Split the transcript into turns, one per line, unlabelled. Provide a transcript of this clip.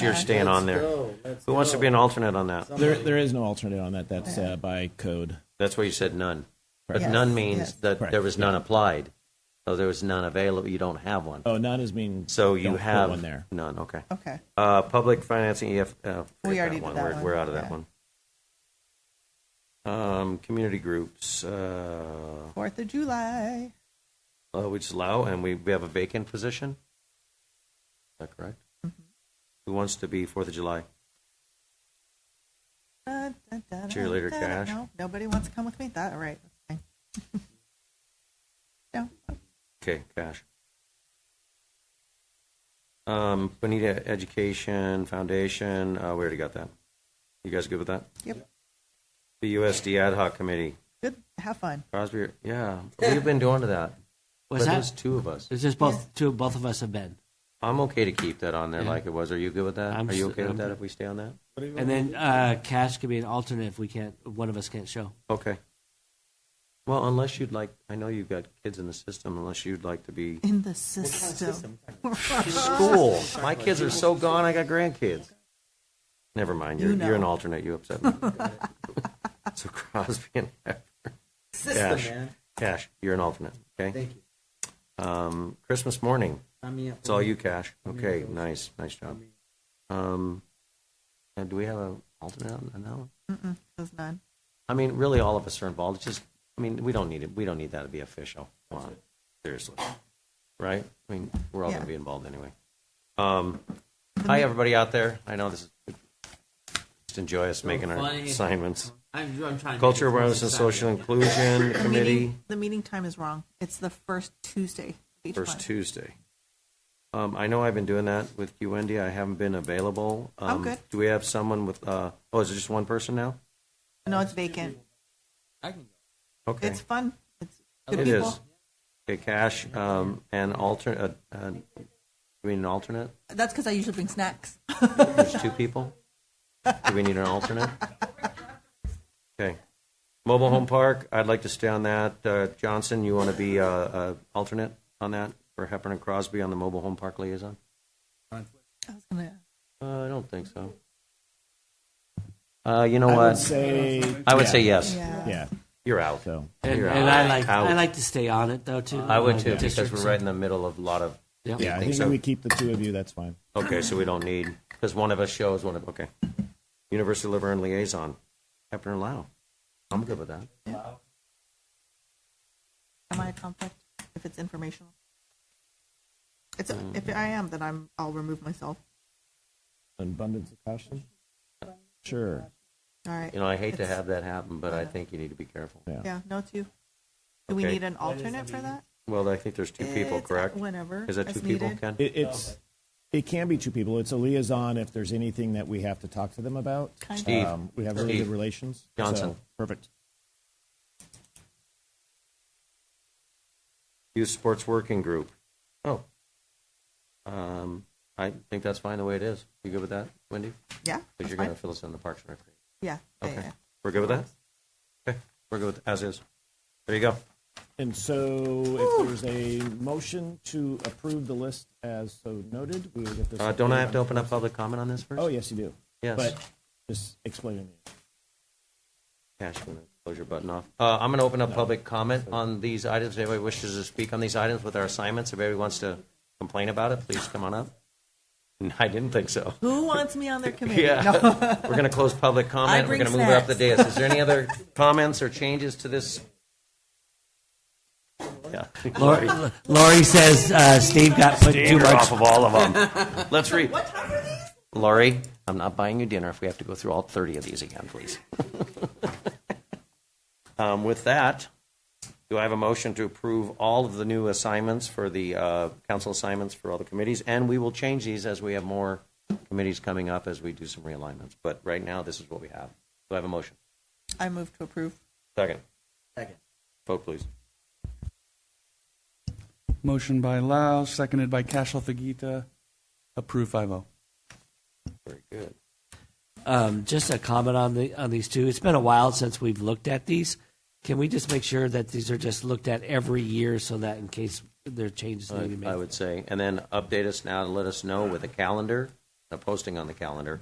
year staying on there. Who wants to be an alternate on that?
There, there is no alternate on that. That's uh, by code.
That's why you said none. But
Correct.
none
Yes,
means
yes.
that
Correct,
there was none applied. So there was none available, you don't have one.
Oh, none is mean.
So
don't
you
put
have
one there.
none, okay.
Okay.
Uh, public financing, EF, uh,
We
forget
already did that
We're-
one,
We're out of that
yeah.
one. Um, community groups, uh,
Fourth of July.
uh, we just allow, and we, we have a vacant position? Is that correct?
Mm-hmm.
Who wants to be Fourth of July?
Dun, dun, dun, dun,
Cheerleader
dun,
Cash.
No, nobody wants to come with me. That all right? That's fine. no.
Okay, cash. Um, Bonita Education Foundation, uh, we already got that. You guys good with that?
Yep.
The USD Ad Hoc Committee,
Good. Have fun.
Crosby, yeah, we've been doing to that.
What's
But
that?
there's two of us.
It's just both two. Both of us have been,
I'm okay to keep that on there
Yeah.
like it was. Are you good with that?
I'm
Are you
s-
okay with
I'm
that
good.
if we stay on that?
and then uh, Cash could be an alternate if we can't. One of us can't show.
Okay. Well, unless you'd like, I know you've got kids in the system, unless you'd like to be
In the system.
school. My kids are so gone, I got grandkids. Never mind, you're,
You
you're an
know.
alternate, you upset me. So Crosby and Hefner. Cash, Cash, you're an alternate, okay?
Thank you.
Um, Christmas morning,
Sign me up.
it's all you, Cash. Okay, nice, nice job. Um, and do we have an alternate on that one?
Mm-mm, there's none.
I mean, really, all of us are involved. It's just, I mean, we don't need it. We don't need that to be official. Come on, seriously, right? I mean, we're all going
Yeah.
to be involved anyway. Um, hi, everybody out there. I know this is just enjoy us making our
funny.
assignments.
I'm, I'm trying.
Culture awareness and social inclusion
The
committee
meeting, the meeting time is wrong. It's the first Tuesday. of Each
first
month.
Tuesday. Um, I know I've been doing that with you, Wendy. I haven't been available.
I'm
Um,
Oh, good.
Do we have someone with? Uh, oh, is it just one person now?
No, it's vacant.
I can go.
Okay.
It's fun. It's good
It
people.
is. Okay, Cash, um, and alter, uh, uh, you mean an alternate?
That's because I usually bring snacks.
There's two people? Do we need an alternate? Okay. Mobile Home Park, I'd like to stay on that. Uh, Johnson, you want to be, uh, uh, alternate on that for Hepburn and Crosby on the Mobile Home Park liaison?
I was gonna.
Uh, I don't think so. Uh, you know
I would
what?
say.
I would
yeah,
say yes.
Yeah.
Yeah.
You're out.
So
And,
You're out.
and I like
Out.
I like to stay on it though too.
I would too,
Like
because
districts
we're right in the middle of a lot of
and-
yeah,
yeah.
I
think
think
so?
we keep the two of you. That's fine.
Okay, so we don't need, because one of us shows, one of, okay. University Liver and Liaison, Hefner and Lau. I'm good with that.
Am I a conflict if it's informational? It's
Mm.
if I am, then I'm. I'll remove myself.
An abundance of caution. Sure.
All right.
You know, I hate to
It's-
have that happen, but I think you need to be careful.
Yeah.
Yeah. No two. Do we
Okay.
need an alternate for that?
Well, I think there's two people,
It's
correct?
Whenever.
Is that
as
two people,
needed.
Ken?
It, it's. It can be two people. It's a liaison if there's anything that we have to talk to them about. Um,
Kind of.
Steve.
we have really
Steve.
good relations.
Johnson.
So, perfect.
Youth Sports Working Group. Oh. Um, I think that's fine the way it is. You good with that, Wendy?
Yeah.
Because
that's
you're going
fine.
to fill us in the Parks and Recreation.
Yeah. yeah,
Okay.
yeah.
We're good with that? Okay, we're good with, as is. There you go.
And so, if there's a motion to approve the list as so noted, we will get this.
Uh, don't I have to open up public comment on this first?
Oh, yes, you do.
Yes.
But just explaining it.
Cash, I'm gonna close your button off. Uh, I'm going to open up public comment on these items. If anybody wishes to speak on these items with our assignments, if anybody wants to complain about it, please come on up. No, I didn't think so.
Who wants me on their committee? No.
Yeah. We're going to close public comment. We're
bring
going to move it up the
snacks.
dais. Is there any other comments or changes to this? Yeah.
Lori, Lori says uh, Steve got put too
You're
much.
off of all of them. Let's read. What time are these? Lori, I'm not buying you dinner if we have to go through all 30 of these again, please. Um, With that, do I have a motion to approve all of the new assignments for the uh, council assignments for all the committees? And we will change these as we have more committees coming up as we do some realignments. But right now, this is what we have. Do I have a motion?
I move to approve.
Second.
Second.
Vote, please.
Motion by Lau, seconded by Cashel Fagita. Approve oh. 5-0.
Very good.
Um, just a comment on the on these two. It's been a while since we've looked at these. Can we just make sure that these are just looked at every year so that in case there are changes need to be made?
I would say. And then update us now to let us know with a calendar uh, posting on the calendar.